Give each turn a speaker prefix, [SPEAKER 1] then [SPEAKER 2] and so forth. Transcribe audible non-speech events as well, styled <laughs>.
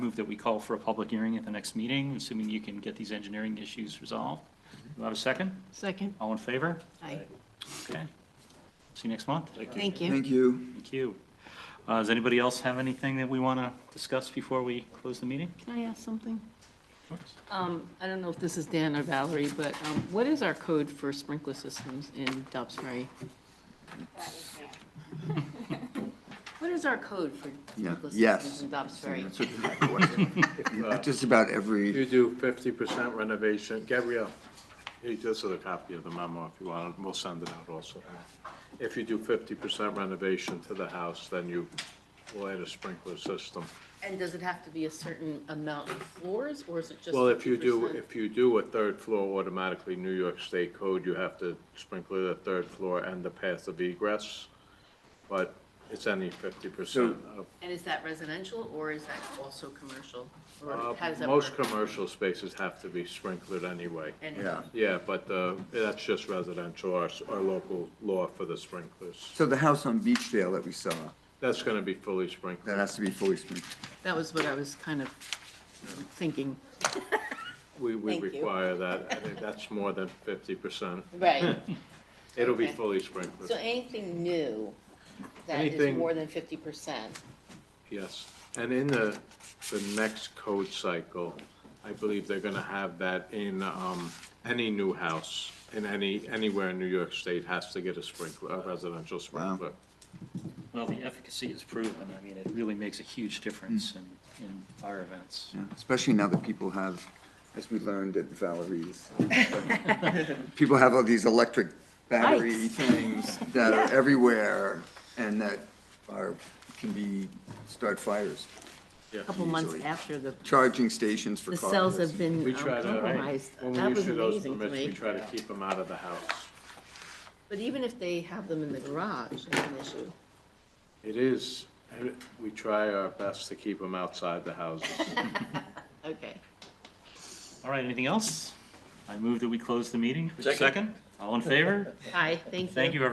[SPEAKER 1] move that we call for a public hearing at the next meeting, assuming you can get these engineering issues resolved. Do I have a second?
[SPEAKER 2] Second.
[SPEAKER 1] All in favor?
[SPEAKER 2] Aye.
[SPEAKER 1] Okay. See you next month.
[SPEAKER 2] Thank you.
[SPEAKER 3] Thank you.
[SPEAKER 1] Thank you. Uh, Does anybody else have anything that we want to discuss before we close the meeting?
[SPEAKER 2] Can I ask something? Um, I don't know if this is Dan or Valerie, but um, what is our code for sprinkler systems in Dobbs <laughs> Ferry? What is our code for
[SPEAKER 3] Yeah,
[SPEAKER 2] sprinkler systems
[SPEAKER 3] yes.
[SPEAKER 2] in Dobbs Ferry?
[SPEAKER 3] That's what- what- Just about every,
[SPEAKER 4] You do fifty percent renovation. Gabrielle, hey, this is a copy of the memo if you want, we'll send it out also. If you do fifty percent renovation to the house, then you will add a sprinkler system.
[SPEAKER 2] And does it have to be a certain amount of floors, or is it just?
[SPEAKER 4] Well, if you do,
[SPEAKER 2] 50%?
[SPEAKER 4] if you do a third floor automatically, New York State code, you have to sprinkler the third floor and the path of egress. But it's any fifty percent of
[SPEAKER 2] And is that residential, or is that also commercial?
[SPEAKER 4] Uh,
[SPEAKER 2] Or how does that
[SPEAKER 4] Most
[SPEAKER 2] work?
[SPEAKER 4] commercial spaces have to be sprinkled anyway.
[SPEAKER 2] And-
[SPEAKER 3] yeah.
[SPEAKER 4] Yeah, but uh, that's just residential, our, s- our local law for the sprinklers.
[SPEAKER 3] So the house on Beachdale that we saw,
[SPEAKER 4] That's going to be fully
[SPEAKER 3] that
[SPEAKER 4] sprinkled.
[SPEAKER 3] has to be fully sprinkled.
[SPEAKER 2] That was what I was kind of thinking.
[SPEAKER 4] We, we
[SPEAKER 2] Thank you.
[SPEAKER 4] require that, I think that's more than 50%.
[SPEAKER 2] Right.
[SPEAKER 4] It'll be
[SPEAKER 2] Okay.
[SPEAKER 4] fully sprinkled,
[SPEAKER 2] So anything new that is
[SPEAKER 4] Anything-
[SPEAKER 2] more than fifty percent,
[SPEAKER 4] yes. And in the, the next code cycle, I believe they're going to have that in um, any new house, in any, anywhere in New York State has to get a sprinkler, a residential sprinkler.
[SPEAKER 1] Well, the efficacy is proven. I mean, it really makes a huge difference in, in fire events.
[SPEAKER 3] Yeah, Especially now that people have, as we learned at Valerie's, people have all these electric battery things that are everywhere and that are, can be, start fires.
[SPEAKER 4] Yeah.
[SPEAKER 2] couple months
[SPEAKER 3] Easily.
[SPEAKER 2] after the,
[SPEAKER 3] Charging stations for
[SPEAKER 2] the
[SPEAKER 3] cars.
[SPEAKER 2] cells have been
[SPEAKER 4] We
[SPEAKER 2] um,
[SPEAKER 4] try to,
[SPEAKER 2] compromised.
[SPEAKER 4] when
[SPEAKER 2] That
[SPEAKER 4] we
[SPEAKER 2] was
[SPEAKER 4] issue those
[SPEAKER 2] amazing to
[SPEAKER 4] permits, we
[SPEAKER 2] me.
[SPEAKER 4] try to keep them out of the house.
[SPEAKER 2] But even if they have them in the garage, it's an issue.
[SPEAKER 4] It is, we try our best to keep them outside the houses.
[SPEAKER 2] Okay.
[SPEAKER 1] All right, anything else? I move that we close the meeting. Hmm. Second. All in favor?
[SPEAKER 2] Hi, thank you.
[SPEAKER 1] Thank you, everyone.